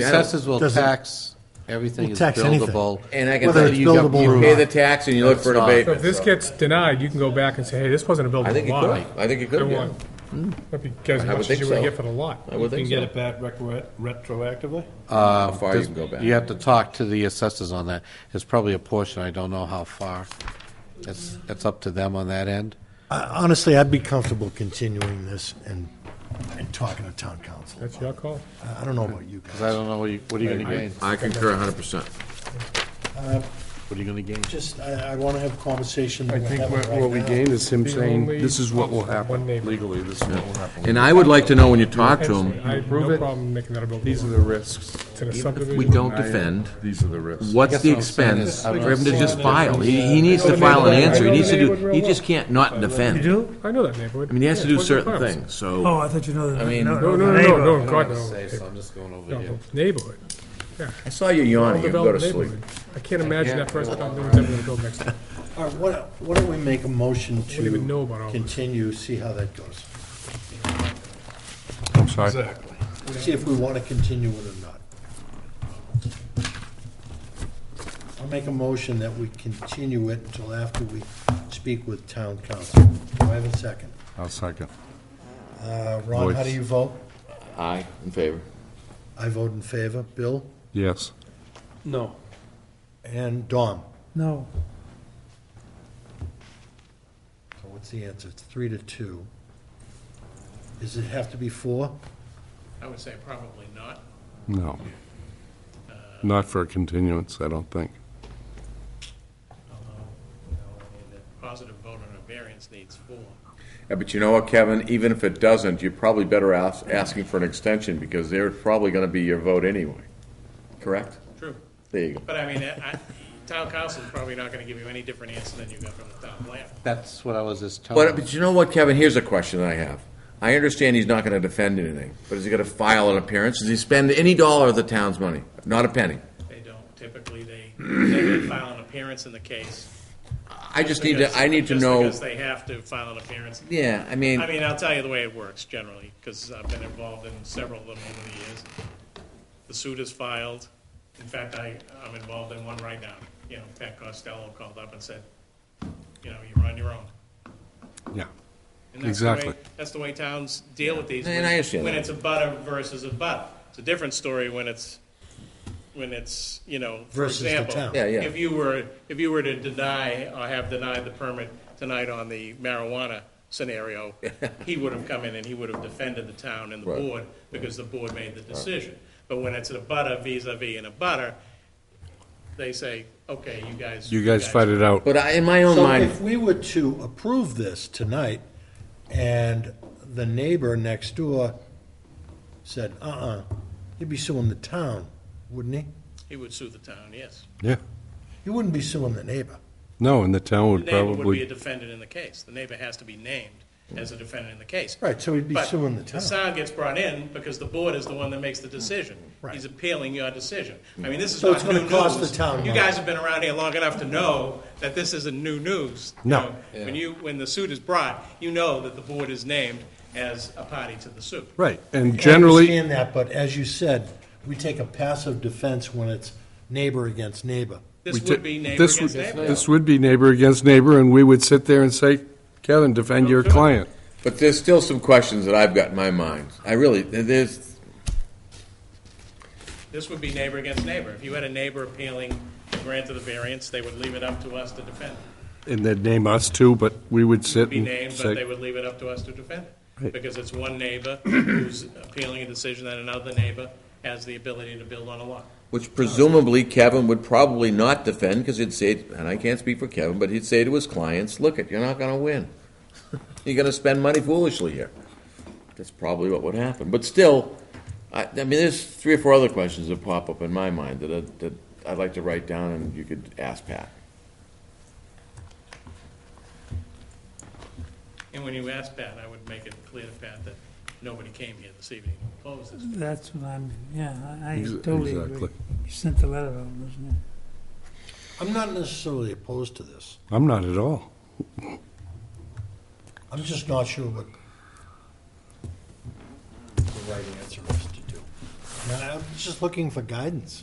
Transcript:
The I don't- assessors will Doesn't- tax everything We'll is tax anything. buildable. And I can Whether tell it's you, you buildable or you pay not. the tax and you look for an It's not. So if abatement. this so. gets denied, you can go back and say, hey, this wasn't a I think buildable you lot. could, I think you could, I yeah. want- That'd be as I would much think as you would so. get for the lot. I would You can think get so. it back recro- retroactively? How far you can go back. You have to talk to the assessors on that. It's probably a portion, I don't know how far. It's, it's up to them on that end. I- Honestly, I'd be comfortable continuing this and, and talking to town council. That's your call. I I don't know about you guys. 'Cause I don't know, what you- what are you going to gain? I concur hundred percent. What are you going to gain? Just, I, I want to have a conversation. I think what what we gained is him The saying, only- this is what will happen One neighbor. legally, this is what will happen. And I would like to know when you talk to I them, have Prove no it. problem making that a buildable These are lot. the risks. It's in a even if subdivision. we don't I am- defend, These are the what's risks. the what I'm saying expense is, I don't for him to know. just file? He, he needs to Yeah. file an answer, he I know needs to the do, neighborhood he real just can't not defend. I do? I know that neighborhood. mean, he has to do certain things. things, so, Oh, I thought you know that. I mean, No, no, no, no, no, God, no. Say, so I'm just going over No, here. the Neighborhood. I saw you yawning, you go to Developed sleep. neighborhood. I can't imagine that person doing whatever they build next to. All right, what, what do we make a motion Wouldn't even know to about all this. continue, see how that goes? I'm sorry. Exactly. See if we want to continue it or not. I'll make a motion that we continue it until after we speak with town council. Do I have a second? I'll second. Uh, Ron, how do you vote? Aye, in favor. I vote in favor. Bill? Yes. No. And Dom. No. So what's the answer? It's three to two. Does it have to be four? I would say probably not. No. Not for a continuance, I don't think. A Positive vote on a variance needs four. Yeah, but you know what, Kevin, even if it doesn't, you're probably better ask, asking for an extension, because they're probably gonna be your vote anyway, correct? True. There you go. But I mean, I, I- town council is probably not going to give you any different answer than you got from the town planner. That's what I was just telling But, you. but you know what, Kevin, here's a question that I have. I understand he's not gonna defend anything, but is he gonna file an appearance? Does he spend any dollar of the town's money? Not a penny. They don't, typically they, they file an appearance in the case. I just need to, because- I need to just know, Because they have to file an appearance. yeah, I mean, I mean, I'll tell you the way it works generally, because I've been involved in several of them over the years. The suit is filed. In fact, I, I'm involved in one right now. You know, Pat Costello called up and said, you know, you're on your own. Yeah. And that's the way- Exactly. That's the way towns deal with these. And when- I understand When that. it's a butter versus a butt. It's a different story when it's, when it's, you know, for Versus the example. town. Yeah, yeah. If you were, if you were to deny or have denied the permit tonight on the marijuana scenario, he would have come in and he would have defended the town and the Right. board because the board made the decision. But when it's a butter vis-à-vis and a butter, they say, okay, you guys. You guys fight it out. but I, in my own So mind, if we were to approve this tonight, and the neighbor next door said, uh-uh, he'd be suing the town, wouldn't he? He would sue the town, yes. Yeah. He wouldn't be suing the neighbor. No, and the town The would neighbor would be a probably, defendant in the case. The neighbor has to be named as a defendant in the case. Right, so he'd be But suing the town. sound gets brought in because the board is the one that makes the decision. Right. He's appealing your decision. I mean, this is So not it's new gonna cost news. the town You money. guys have been around here long enough to know that this isn't new news. You No. know, When you, when the suit is brought, you know that the board is named as a party to the suit. right, and I generally, understand that, but as you said, we take a passive defense when it's neighbor against neighbor. This We ta- would be neighbor this against would- neighbor. This would be neighbor against neighbor, and we would sit there and say, Kevin, defend your client. But there's still some questions that I've got in my mind. I really, there's, This would be neighbor against neighbor. If you had a neighbor appealing the grant of the variance, they would leave it up to us to defend it. And they'd name us too, but we would sit be and named, but they say, would leave it up to us to defend it. Right. Because it's one neighbor who's appealing a decision that another neighbor has the ability to build on a lot. which presumably Kevin would probably not defend, because he'd say, and I can't speak for Kevin, but he'd say to his clients, look it, you're not gonna win. You're gonna spend money foolishly here. That's probably what would happen. But still, I, I mean, there's three or four other questions that pop up in my mind that, I- that I'd like to write down and you could ask Pat. And when you ask Pat, I would make it clear to Pat that nobody came here this evening to oppose this. That's what I'm, yeah, I I Ex- totally agree. exactly. You sent the letter out, wasn't it? I'm not necessarily opposed to this. I'm not at all. I'm just not sure what the right answer is to do. I'm just looking for guidance.